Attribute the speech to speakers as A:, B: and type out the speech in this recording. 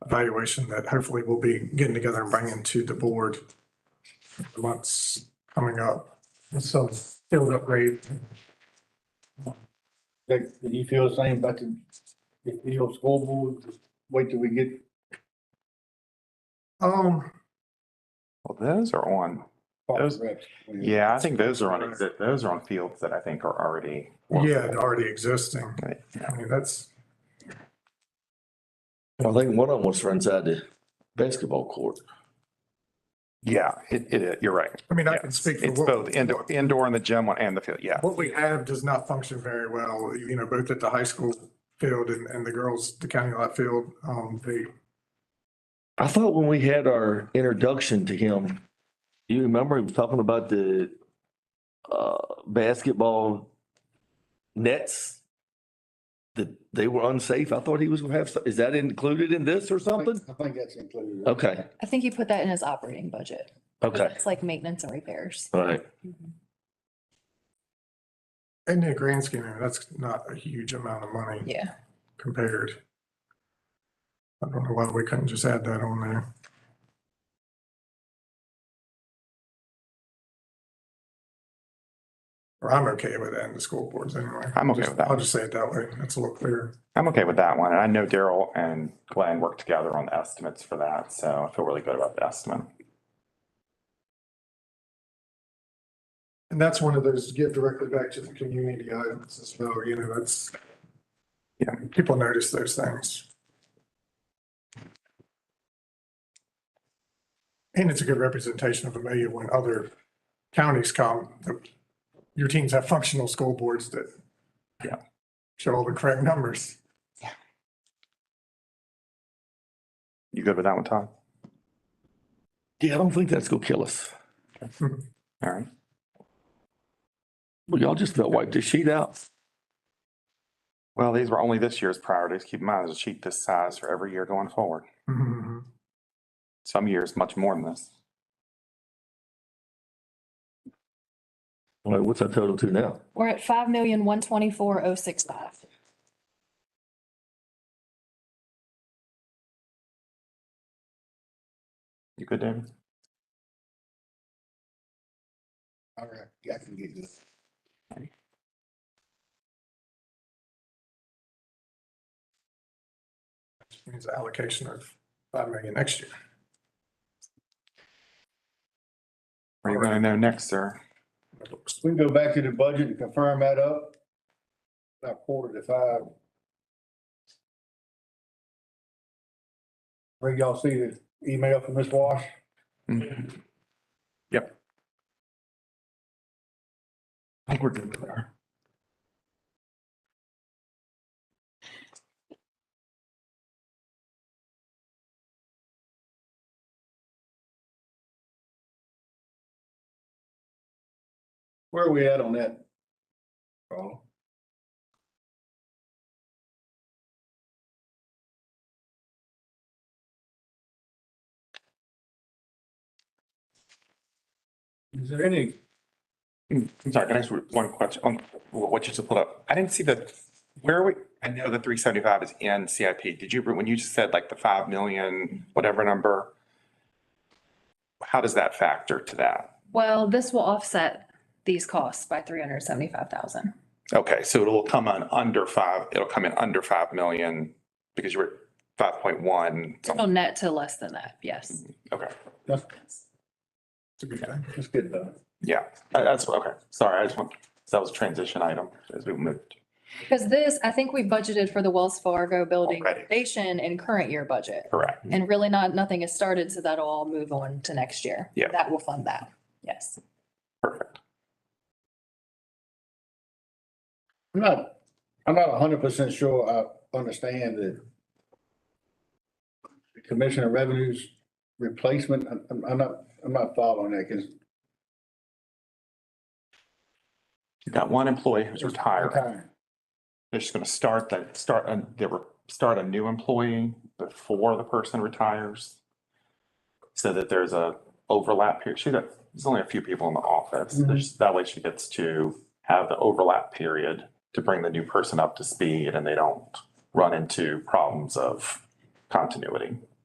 A: evaluation that hopefully we'll be getting together and bringing to the board in the months coming up. So field upgrade.
B: Like, do you feel the same about the, the field school board, Just wait till we get,
A: Um,
C: Well, those are on, Those- yeah, I think those are on, exi- those are on fields that I think are already.
A: yeah, they're already existing. I mean, that's,
D: I think one of them was inside the basketball court.
C: Yeah, it, it, you're right.
A: I mean, I
C: Yeah.
A: can speak for
C: It's
A: what.
C: both indoor, indoor and the gym one and the field, yeah.
A: what we have does not function very well, you know, both at the high school field and, and the girls, the county lot field. Um, they,
D: I thought when we had our introduction to him, you remember he was talking about the uh, basketball nets? That they were unsafe. I thought he was gonna have, some- is that included in this or
B: I
D: something?
B: think- I think that's included.
C: Oh.
D: Okay,
E: I think he put that in his operating budget.
D: okay,
E: It's like maintenance and repairs.
D: all right.
A: in the grand scheme, I mean, that's not a huge amount of money
E: Yeah.
A: compared. I don't know why we couldn't just add that on there. Or I'm okay with that in the school boards anyway.
C: I'm okay with that.
A: I'll just say it that way. That's a little clearer.
C: I'm okay with that one. And I know Daryl and Glenn worked together on the estimates for that, so I feel really good about the estimate.
A: And that's one of those give directly back to the community items as well, you know, that's. Yeah, people notice those things. And it's a good representation of Amelia when other counties come, the- your teams have functional school boards that.
C: Yeah.
A: Show all the correct numbers.
C: You good with that one, Todd?
D: Yeah, I don't think that's gonna kill us.
C: All right.
D: Well, y'all just about wiped this sheet out.
C: Well, these were only this year's priorities. Keep in mind, there's a sheet this size for every year going forward.
A: Mhm.
C: Some years much more than this.
D: All right, what's our total to now?
E: We're at five million, one twenty-four, oh six five.
C: You good, David?
B: All right, I can get this.
A: Means allocation of five million next year.
C: Where you going to know next, sir?
B: We can go back to the budget and confirm that up. About quarter to five. Where y'all see the email from Ms. Wash?
C: Mhm. Yep. I think we're good there.
B: Where are we at on that? Paul? Is there any,
C: I'm sorry, can I ask one question on what you just put up? I didn't see the, where are we? I know the three seventy-five is in CIP. Did you, when you just said like the five million, whatever number, how does that factor to that?
E: Well, this will offset these costs by three hundred seventy-five thousand.
C: Okay, so it'll come in under five, it'll come in under five million because you were five point one.
E: It'll net to less than that, yes.
C: Okay,
B: that's,
A: It's a good thing.
B: that's good though.
C: yeah, Uh, that's, okay. Sorry, I just want, that was a transition item as we moved.
E: Because this, I think we budgeted for the Wells Fargo building
C: Already.
E: station in current year budget.
C: Correct.
E: And really not, nothing has started, so that'll all move on to next year.
C: Yeah.
E: That will fund that, yes.
C: Perfect.
B: I'm not, I'm not hundred percent sure I understand the the Commissioner Revenues replacement. I'm- I'm, I'm not, I'm not following that because
C: You got one employee who's retired.
B: Retiring.
C: They're just gonna start that, start, a- they were, start a new employee before the person retires. So that there's a overlap here. She, got- there's only a few people in the office.
B: Mhm.
C: There's- That way she gets to have the overlap period to bring the new person up to speed and they don't run into problems of continuity.